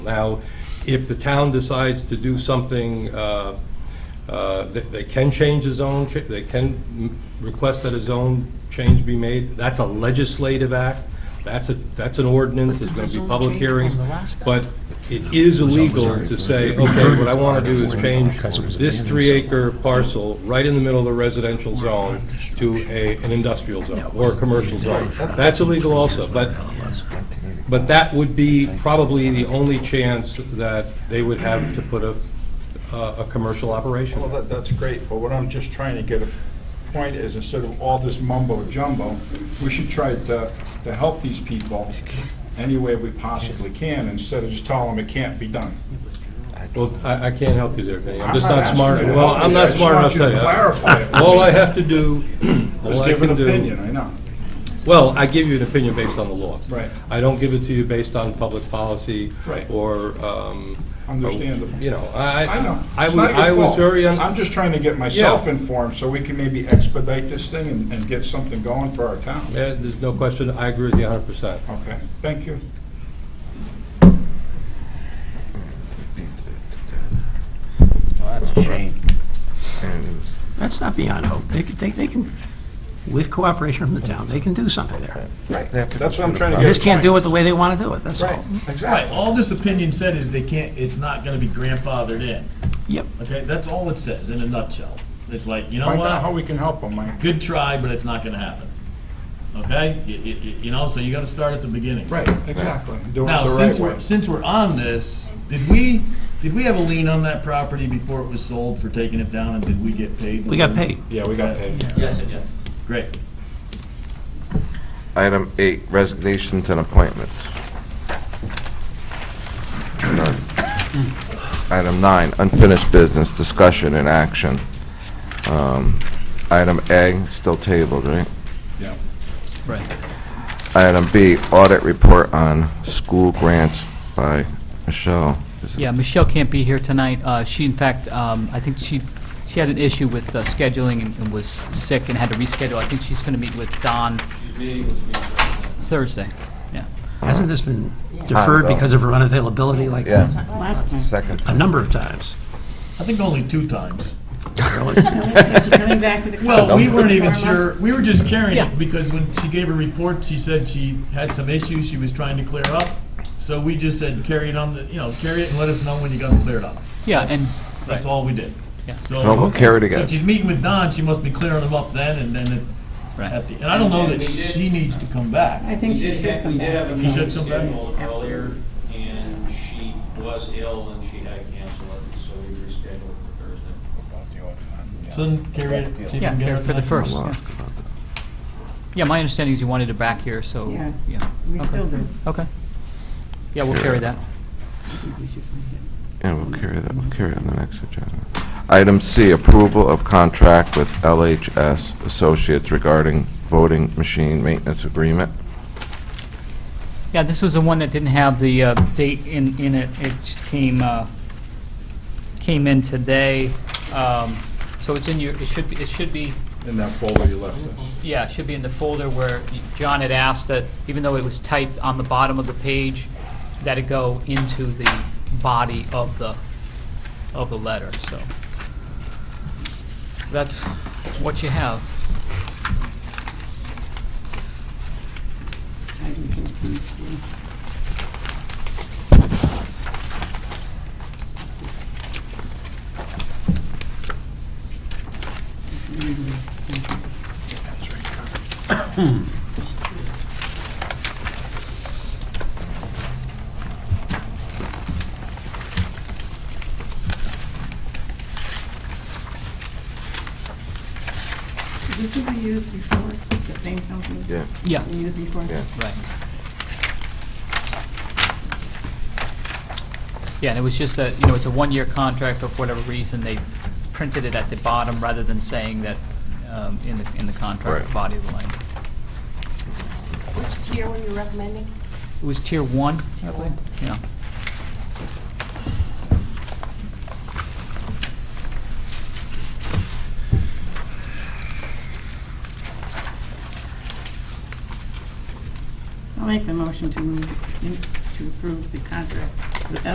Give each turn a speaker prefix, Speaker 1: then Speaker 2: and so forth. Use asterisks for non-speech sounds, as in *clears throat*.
Speaker 1: Now, if the town decides to do something, uh, uh, they they can change the zone, ch- they can mm, request that a zone change be made. That's a legislative act, that's a, that's an ordinance, there's going to be public hearings. But it is illegal to say, okay, what I want to do is change this three-acre parcel right in the middle of the residential zone to a, an industrial zone or a commercial zone. That's illegal also, but but that would be probably the only chance that they would have to put a, a a commercial
Speaker 2: Well,
Speaker 1: operation.
Speaker 2: that, that's great, but what I'm just trying to get a point is, instead of all this mumbo jumbo, we should try to, to help these people any way we possibly can, instead of just telling them it can't be done.
Speaker 1: Well, I, I can't help you there, Vinnie. I'm just
Speaker 2: I'm
Speaker 1: not
Speaker 2: asking
Speaker 1: smart,
Speaker 2: you to
Speaker 1: well,
Speaker 2: help
Speaker 1: I'm
Speaker 2: me. I
Speaker 1: not
Speaker 2: just
Speaker 1: smart enough
Speaker 2: want
Speaker 1: to
Speaker 2: you to
Speaker 1: tell you.
Speaker 2: clarify it for
Speaker 1: All
Speaker 2: me.
Speaker 1: I have to do, *clears throat* all
Speaker 2: Just
Speaker 1: I
Speaker 2: give an
Speaker 1: can
Speaker 2: opinion,
Speaker 1: do,
Speaker 2: I know.
Speaker 1: well, I give you an opinion based on the law.
Speaker 2: Right.
Speaker 1: I don't give it to you based on public policy.
Speaker 2: Right.
Speaker 1: Or, um. or,
Speaker 2: Understandable.
Speaker 1: You know, I,
Speaker 2: I know.
Speaker 1: I,
Speaker 2: It's
Speaker 1: wa-
Speaker 2: not your
Speaker 1: I was
Speaker 2: fault.
Speaker 1: very, un-
Speaker 2: I'm just trying to get myself informed, so we can maybe expedite this thing and, and get something going for our town.
Speaker 1: Yeah, eh, there's no question, I agree with you hundred percent.
Speaker 2: Okay, thank you.
Speaker 3: That's a shame.
Speaker 4: That's not beyond hope. They can, they, they can, with cooperation from the town, they can do something there.
Speaker 2: That's what I'm trying to
Speaker 4: They
Speaker 2: get.
Speaker 4: just can't do it the way they want to do it, that's
Speaker 2: Right,
Speaker 4: all.
Speaker 2: exactly.
Speaker 5: Right, all this opinion said is they can't, it's not gonna be grandfathered in,
Speaker 4: Yep.
Speaker 5: okay? That's all it says in a nutshell. It's like, you know
Speaker 2: Find out how
Speaker 5: what?
Speaker 2: we can help them, Mike.
Speaker 5: Good try, but it's not gonna happen, okay? You, you, you know, so you gotta start at the beginning.
Speaker 2: Right, exactly. Do it
Speaker 5: Now,
Speaker 2: the right
Speaker 5: since we're,
Speaker 2: way.
Speaker 5: since we're on this, did we, did we have a lien on that property before it was sold for taking it down and did we get paid?
Speaker 4: We got paid.
Speaker 2: Yeah, we got paid.
Speaker 6: Yes, and yes.
Speaker 5: Great.
Speaker 3: Item eight, resignations and appointments. None.
Speaker 2: Hmm.
Speaker 3: Item nine, unfinished business, discussion and action. Um, Item A, still tabled, right?
Speaker 2: Yeah.
Speaker 3: Item B, audit report on school grants by Michelle. Is it-
Speaker 6: Yeah, Michelle can't be here tonight. Uh, She, in fact, um, I think she, she had an issue with uh, scheduling and- and was sick and had to reschedule. I think she's going to meet with Don Thursday, yeah.
Speaker 4: Hasn't this been deferred because of her unavailability like
Speaker 3: Yeah,
Speaker 7: Last time.
Speaker 3: second.
Speaker 4: a number of times?
Speaker 5: I think only two times.
Speaker 7: Is she coming back to the?
Speaker 5: Well, we
Speaker 3: *laughs*
Speaker 5: weren't even
Speaker 7: Tomorrow?
Speaker 5: sure, we were just carrying
Speaker 6: Yeah.
Speaker 5: it, because when she gave her report, she said she had some issues she was trying to clear up. So we just said, carry it on, the you know, carry it and let us know when you got it cleared up.
Speaker 6: Yeah, and,
Speaker 5: That's all we did.
Speaker 6: Yeah.
Speaker 3: So Oh, we'll carry it
Speaker 5: So
Speaker 3: again.
Speaker 5: she's meeting with Don, she must be clearing them up then, and then at,
Speaker 6: right,
Speaker 5: at the, and I don't know that she needs to come back.
Speaker 7: I think she
Speaker 8: did
Speaker 7: should
Speaker 8: have-
Speaker 7: come
Speaker 8: We did
Speaker 7: back.
Speaker 8: have a
Speaker 5: She should
Speaker 8: meeting
Speaker 5: come back.
Speaker 8: scheduled earlier, and she was ill and she had to cancel it, so we rescheduled for Thursday.
Speaker 5: So then carry it, see if you can get her.
Speaker 6: yeah, for the
Speaker 5: next
Speaker 6: first.
Speaker 5: one.
Speaker 6: yeah. Yeah, my understanding is you wanted her back here, so,
Speaker 7: Yeah.
Speaker 6: yeah,
Speaker 7: We still do.
Speaker 6: okay. Yeah, we'll carry that.
Speaker 3: Yeah, we'll carry that, we'll carry it on the next agenda. Item C, approval of contract with LHS Associates regarding voting machine maintenance agreement.
Speaker 6: Yeah, this was the one that didn't have the uh, date in, in it. It just came, uh, came in today. Um, So it's in your, it should be, it should be
Speaker 2: In that folder you left us.
Speaker 6: Yeah, it should be in the folder where John had asked that, even though it was typed on the bottom of the page, that it go into the body of the, of the letter, so. That's what you have.
Speaker 7: Item 14C. What's this? Is This what we used before, the same company?
Speaker 3: Yeah.
Speaker 6: Yeah.
Speaker 7: We used before?
Speaker 3: Yeah.
Speaker 6: Right. Yeah, and it was just that, you know, it's a one-year contract, but for whatever reason, they printed it at the bottom rather than saying that um, in the, in the contract
Speaker 3: Right.
Speaker 6: body of the language.
Speaker 9: Which tier were you recommending?
Speaker 6: It was tier one, I believe, yeah.
Speaker 7: I'll make the motion to move, in- to approve the contract with